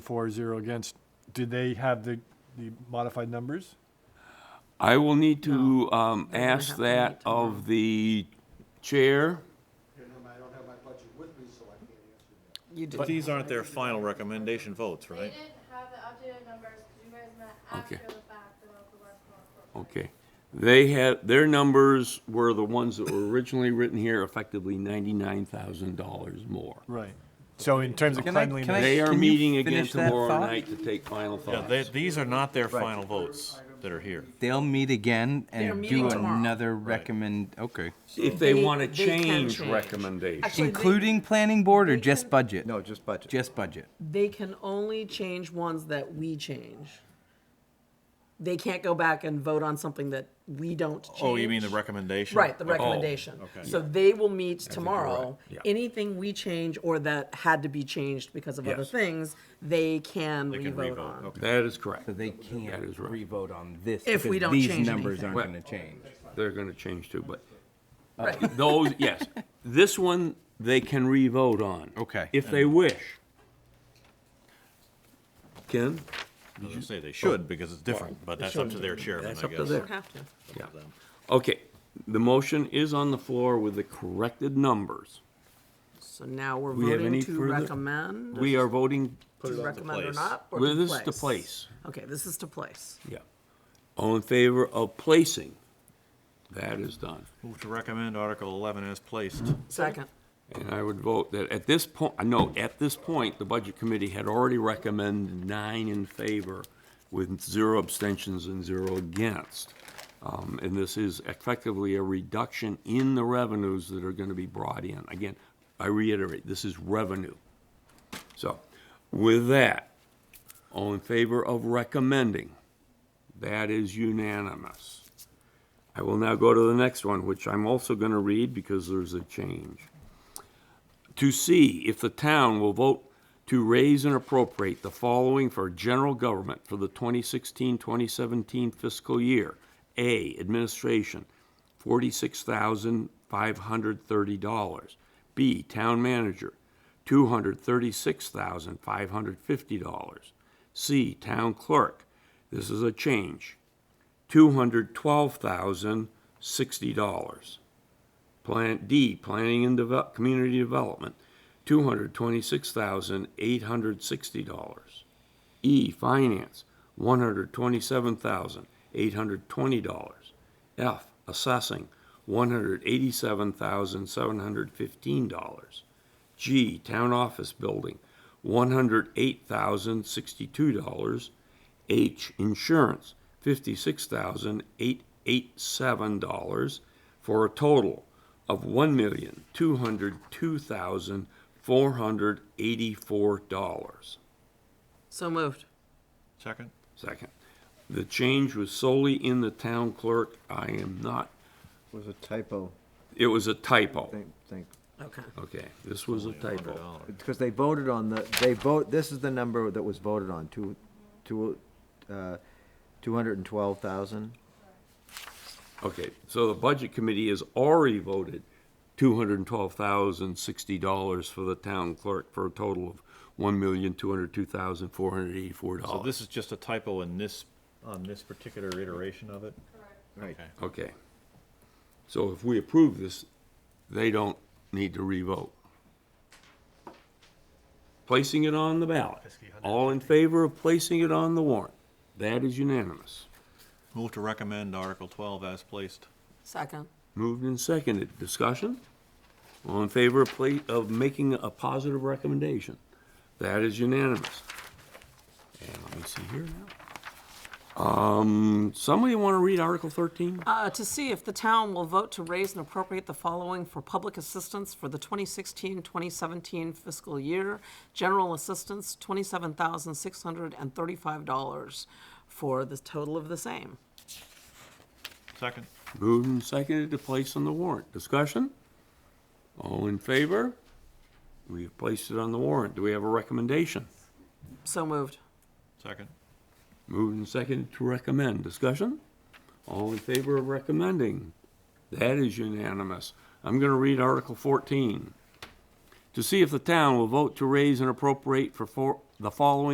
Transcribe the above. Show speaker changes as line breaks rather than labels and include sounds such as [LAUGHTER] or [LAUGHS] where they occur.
for, zero against. Did they have the, the modified numbers?
I will need to um,
We're gonna
ask
have to
that
meet tomorrow.
of the chair.
I don't have my budget with me, so I can't answer that.
You
But
do.
these aren't their final recommendation votes,
They
right?
didn't have the updated numbers, because you guys met
Okay. Oh,
after the fact about the Westmore Corp.
Okay. They had, their numbers were the ones that were originally written here, effectively $99,000 more.
Right. So in terms of
Can I-
cleanliness.
can I-
They are
you
meeting again
finish that
tomorrow
thought?
night to take final
Yeah,
thoughts.
they, these are not their final votes that are here.
They'll meet again
They're
and do
meeting tomorrow.
another recommend, okay.
If they
They-
want to
they can
change
change.
recommendations.
Actually, they-
Including planning board or just budget?
No, just budget.
Just budget.
They can only change ones that we change. They can't go back and vote on something that we don't change.
Oh, you mean the recommendation? Oh,
Right, the
Okay.
recommendation.
okay.
So they will meet
right.
tomorrow.
Yeah.
Anything we change or that had to be changed because of other
Yes.
things, they can
They can
revote
re-vote,
on.
okay.
That is correct.
So they can't
That is right.
re-vote on this.
If we
because
don't change
These numbers
anything.
aren't
Right.
gonna change.
They're going to change too, but
Right.
those, [LAUGHS] yes. This one, they can re-vote on.
Okay.
If they wish. Ken?
I was gonna say they should, because it's different, but that's up to their chairman,
That's
I
up to
guess.
their-
Don't have to.
Yeah. Okay, the motion is on the floor with the corrected numbers.
So now we're
We have
voting
any
to
further-
recommend,
We are voting,
to recommend or
place.
not, or
Well,
to
this is to place.
Okay, this is to place.
yeah. All in favor of placing? That is done.
Move to recommend Article eleven as placed.
Second.
And I would vote that at this point, no, at this point, the Budget Committee had already recommended nine in favor with zero abstentions and zero against. Um, And this is effectively a reduction in the revenues that are going to be brought in. Again, I reiterate, this is revenue. So with that, all in favor of recommending? That is unanimous. I will now go to the next one, which I'm also going to read because there's a change to see if the town will vote to raise and appropriate the following for general government for the 2016-2017 fiscal year. A, administration, $46,530. B, town manager, $236,550. C, town clerk, this is a change, $212,060. Plan D, Planning and Develop, Community Development, two hundred twenty-six thousand eight hundred sixty dollars. E, Finance, one hundred twenty-seven thousand eight hundred twenty dollars. F, Assessing, one hundred eighty-seven thousand seven hundred fifteen dollars. G, Town Office Building, one hundred eight thousand sixty-two dollars. H, insurance, fifty-six thousand eight eight seven dollars for a total of one million two hundred two thousand four hundred eighty-four dollars.
So moved.
Second?
Second, the change was solely in the town clerk. I am not,
Was a typo,
it was a typo.
think, think,
Okay.
Okay, this was a typo.
$100.
because they voted on the, they vote, this is the number that was voted on, two, two, uh, two hundred and twelve thousand?
Okay, so the budget committee has already voted two hundred and twelve thousand sixty dollars for the town clerk for a total of one million two hundred two thousand four hundred eighty-four dollars.
So this is just a typo in this, on this particular iteration of it?
Right.
Okay.
Okay. So if we approve this, they don't need to revote. Placing it on the ballot. All in favor of placing it on the warrant? That is unanimous.
Move to recommend Article twelve as placed.
Second.
Moved and seconded. Discussion? All in favor of pla, of making a positive recommendation? That is unanimous. And let me see here now. Um, somebody want to read Article thirteen?
Uh, to see if the town will vote to raise and appropriate the following for public assistance for the 2016-2017 fiscal year. General assistance, $27,635 for the total of the same.
Second?
Moved and seconded to place on the warrant. Discussion? All in favor? We have placed it on the warrant. Do we have a recommendation?
So moved.
Second?
Moved and seconded to recommend. Discussion? All in favor of recommending? That is unanimous. I'm going to read Article 14. To see if the town will vote to raise and appropriate for four- the following